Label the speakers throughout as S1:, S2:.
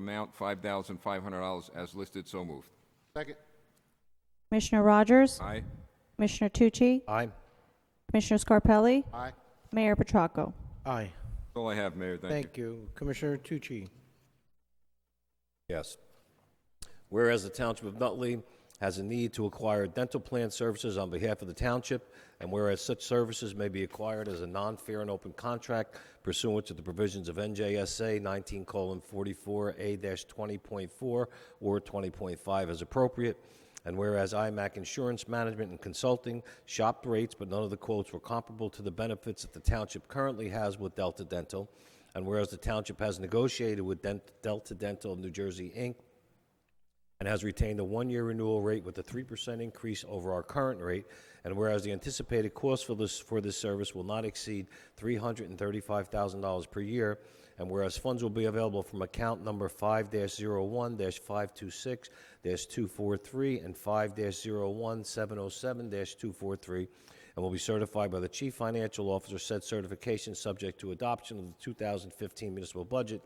S1: amount $5,500 as listed. So moved.
S2: Second.
S3: Commissioner Rogers?
S1: Aye.
S3: Commissioner Tucci?
S4: Aye.
S3: Commissioner Scarpelli?
S2: Aye.
S3: Mayor Petracco?
S4: Aye.
S1: That's all I have, Mayor. Thank you.
S4: Thank you. Commissioner Tucci.
S5: Yes. Whereas the Township of Nutley has a need to acquire dental plan services on behalf of the township, and whereas such services may be acquired as a non-fair and open contract pursuant to the provisions of NJSA 19:44A-20.4 or 20.5 as appropriate, and whereas IMAC Insurance Management and Consulting shopped rates, but none of the quotes were comparable to the benefits that the township currently has with Delta Dental, and whereas the township has negotiated with Dent- Delta Dental of New Jersey, Inc., and has retained a one-year renewal rate with a 3% increase over our current rate, and whereas the anticipated cost for this, for this service will not exceed $335,000 per year, and whereas funds will be available from account number 5-01-526-243 and 5-01-707-243, and will be certified by the Chief Financial Officer, said certification subject to adoption of the 2015 municipal budget,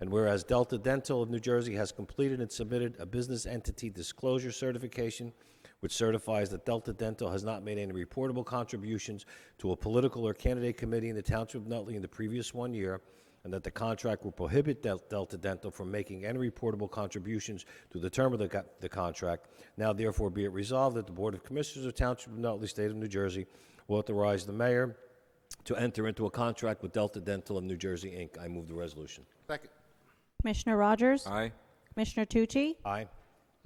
S5: and whereas Delta Dental of New Jersey has completed and submitted a business entity disclosure certification, which certifies that Delta Dental has not made any reportable contributions to a political or candidate committee in the Township of Nutley in the previous one year, and that the contract will prohibit Del- Delta Dental from making any reportable contributions to the term of the, co- the contract. Now therefore be it resolved that the Board of Commissioners of Township of Nutley, State of New Jersey, will authorize the mayor to enter into a contract with Delta Dental of New Jersey, Inc. I move the resolution.
S2: Second.
S3: Commissioner Rogers?
S1: Aye.
S3: Commissioner Tucci?
S5: Aye.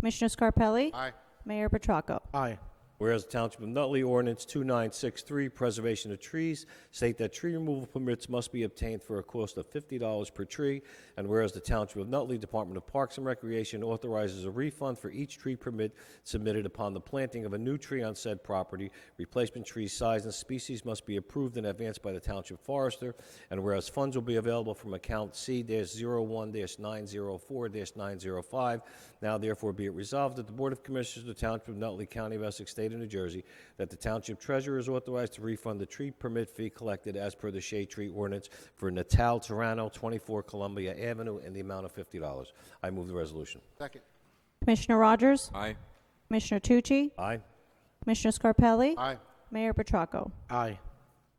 S3: Commissioner Scarpelli?
S2: Aye.
S3: Mayor Petracco?
S4: Aye.
S5: Whereas the Township of Nutley Ordinance 2963, Preservation of Trees, state that tree removal permits must be obtained for a cost of $50 per tree, and whereas the Township of Nutley Department of Parks and Recreation authorizes a refund for each tree permit submitted upon the planting of a new tree on said property, replacement tree size and species must be approved in advance by the Township Forester, and whereas funds will be available from account C-01-904-905, now therefore be it resolved that the Board of Commissioners of the Township of Nutley County of Essex, State of New Jersey, that the Township Treasurer is authorized to refund the tree permit fee collected as per the shade tree ordinance for Natal Toronto, 24 Columbia Avenue, in the amount of $50. I move the resolution.
S2: Second.
S3: Commissioner Rogers?
S1: Aye.
S3: Commissioner Tucci?
S5: Aye.
S3: Commissioner Scarpelli?
S2: Aye.
S3: Mayor Petracco?
S4: Aye.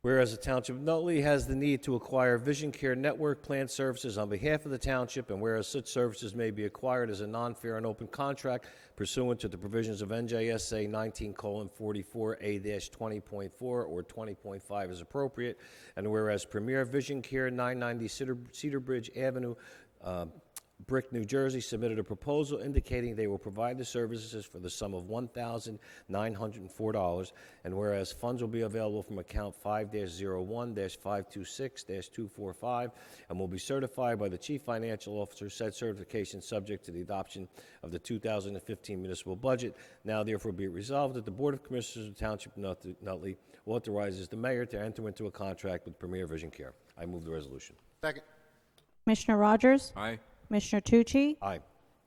S5: Whereas the Township of Nutley has the need to acquire Vision Care Network Plan Services on behalf of the Township, and whereas such services may be acquired as a non-fair and open contract pursuant to the provisions of NJSA 19:44A-20.4 or 20.5 as appropriate, and whereas Premier Vision Care 990 Cedar- Cedar Bridge Avenue uh, Brick, New Jersey submitted a proposal indicating they will provide the services for the sum of $1,904, and whereas funds will be available from account 5-01-526-245 and will be certified by the Chief Financial Officer, said certification subject to the adoption of the 2015 municipal budget. Now therefore be it resolved that the Board of Commissioners of the Township of Nut- Nutley authorizes the mayor to enter into a contract with Premier Vision Care. I move the resolution.
S2: Second.
S3: Commissioner Rogers?
S1: Aye.
S3: Commissioner Tucci?
S5: Aye.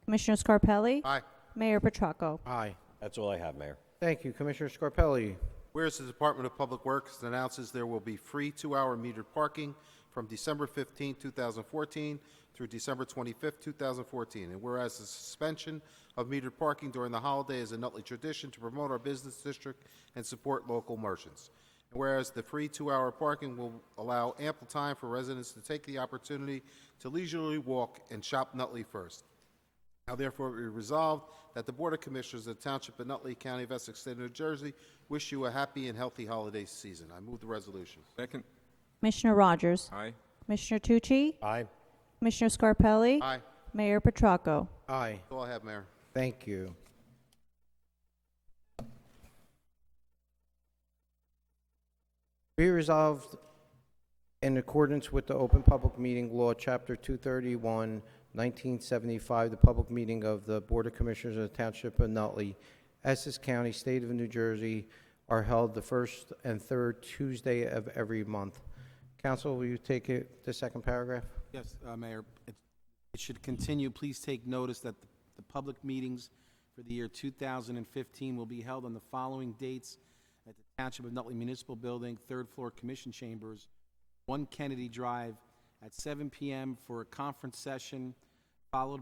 S3: Commissioner Scarpelli?
S2: Aye.
S3: Mayor Petracco?
S4: Aye.
S5: That's all I have, Mayor.
S4: Thank you, Commissioner Scarpelli.
S2: Whereas the Department of Public Works announces there will be free two-hour metered parking from December 15, 2014 through December 25, 2014. And whereas the suspension of metered parking during the holiday is a Nutley tradition to promote our business district and support local merchants. And whereas the free two-hour parking will allow ample time for residents to take the opportunity to leisurely walk and shop Nutley first. Now therefore be resolved that the Board of Commissioners of the Township of Nutley, County of Essex, State of New Jersey, wish you a happy and healthy holiday season. I move the resolution.
S1: Second.
S3: Commissioner Rogers?
S1: Aye.
S3: Commissioner Tucci?
S5: Aye.
S3: Commissioner Scarpelli?
S2: Aye.
S3: Mayor Petracco?
S4: Aye.
S2: That's all I have, Mayor.
S4: Thank you. Be resolved in accordance with the Open Public Meeting Law, Chapter 231, 1975, the public meeting of the Board of Commissioners of the Township of Nutley, Essex County, State of New Jersey, are held the first and third Tuesday of every month. Council, will you take it, the second paragraph?
S6: Yes, uh, Mayor, it it should continue. Please take notice that the- the public meetings for the year 2015 will be held on the following dates at the Township of Nutley Municipal Building, third floor Commission Chambers, 1 Kennedy Drive, at 7 PM for a conference session, followed